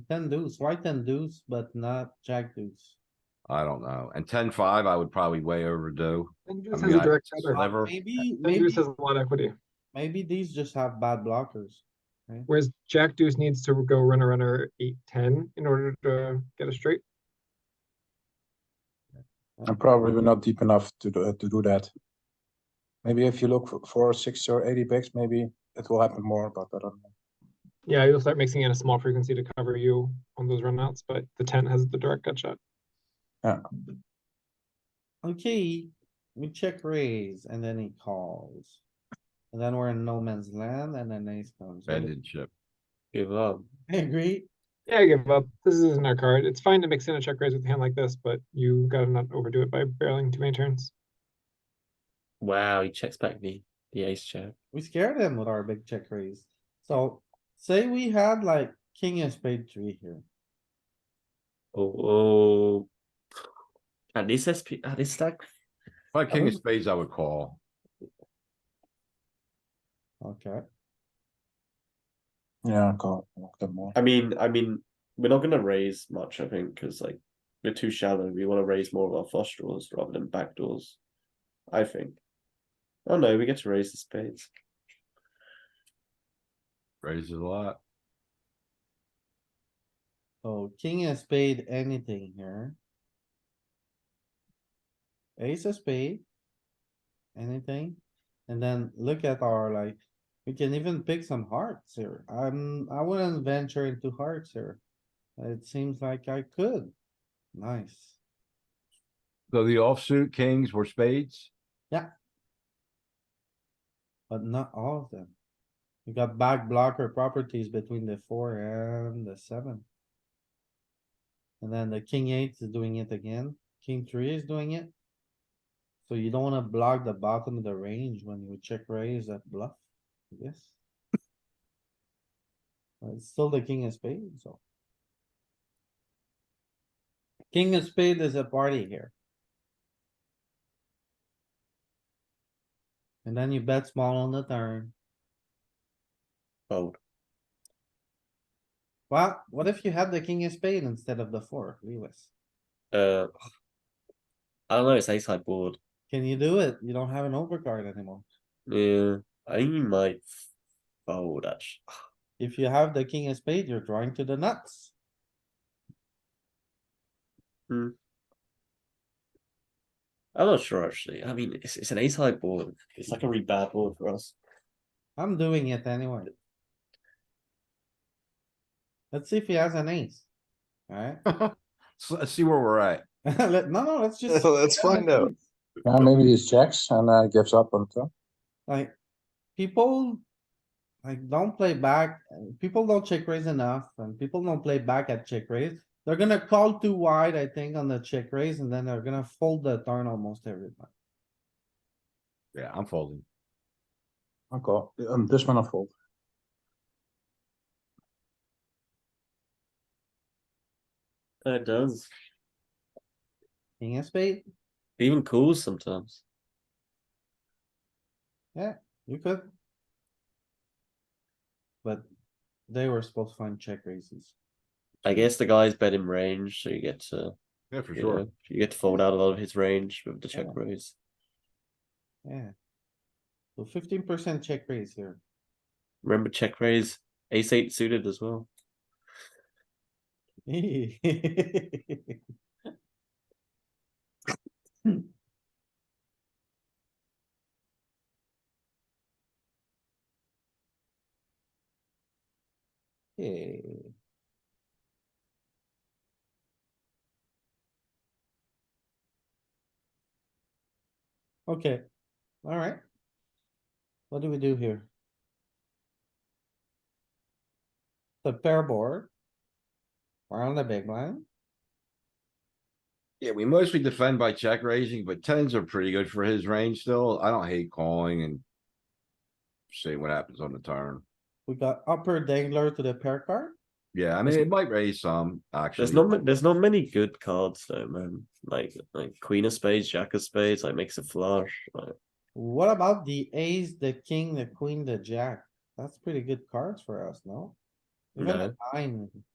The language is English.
Ten deuce, why ten deuce, but not jack deuce? I don't know. And ten five, I would probably way overdue. And I Deuce has mean, a I- direct shot. Sliver. Uh, Maybe, And maybe, Deuce has a lot of equity, maybe these just have bad blockers. whereas Jack Deuce needs to go runner, runner, eight, ten in order to get a straight. And probably we're not deep enough to do, to do that. Maybe if you look for- for six or eighty bigs, maybe it will happen more, but I don't know. Yeah, you'll start mixing in a small frequency to cover you on those runouts, but the ten has the direct gut shot. Okay, we check raise and then he calls. And then we're in no man's land and then ace comes. What do you- Banded chip. Give up. I Agree, Yeah, I give up. This isn't our card. It's fine to mix in a check raise with a hand like this, but you gotta not overdo it by barreling too many turns. Wow, he checks back the the ace check. we scared him with our big check raise. So say we had like king and spade three here. Oh, oh. At this SP, at this stack, If I had king of wouldn't- spades, I would call. Okay, Yeah, call, look them more. I mean, I mean, we're not gonna raise much, I think, because like we're too shallow. We want to raise more of our flush draws rather than back doors. I think. Oh no, we get to raise the spades. Raises a lot. so king and spade, anything here? Ace of spade. Anything? And then look at our like, we can even pick some hearts here. I'm, I wouldn't venture into hearts here. It seems like I could. Nice. So the offsuit kings were spades. But not all of them. You got back blocker properties between the four and the seven. And then the king eight is doing it again, king three is doing it. So you don't wanna block the bottom of the range when you check raise that bluff, I guess. But It's still the king of spades, so. King of spade is a party here. And then you bet small on the turn. Fold. Well, what if you had the king of spade instead of the four, Lewis? Uh, I don't know. It's ace high board. Can you do it? You don't have an overcard anymore. Yeah, Uh, I think we might fold actually. If you have the king of spade, you're drawing to the nuts. I'm not sure actually. I mean, it's, it's an ace high board. It's like a really bad board for us. I'm doing it anyway. Let's see if he has an ace. Alright, So let's see where we're at. let, no, no, let's just. Let's find out. Yeah, maybe he checks and uh, gives up on turn. Like, people. Like, don't play back, uh, people don't check raise enough, and people don't play back at check raise. They're gonna call too wide, I think, on the check raise, and then they're gonna fold the turn almost every time. Yeah, I'm folding. I call, um, this one I fold. Uh, It does. King of spade, It even calls sometimes. you could. But they were supposed to find check raises. I guess the guy's bet in range, so you get to Yeah, for you, sure. know, you get to fold out a lot of his range with the check Yeah. raise. Yeah. So fifteen percent check raise here. Remember check raise, ace eight suited as well. Check Okay, alright. What do we do here? The pair board. We're on the big blind. Yeah, we mostly defend by check raising, but tens are pretty good for his range still. I don't hate calling and. See what happens on the turn. We got upper dangler to the pair card. Yeah, I mean, it might raise some, actually. There's not ma- there's not many good cards though, man. Like like Queen of Spades, Jack of Spades, like makes a flush. Like, What about the ace, the king, the queen, the jack? That's pretty good cards for us, no? Even the nine,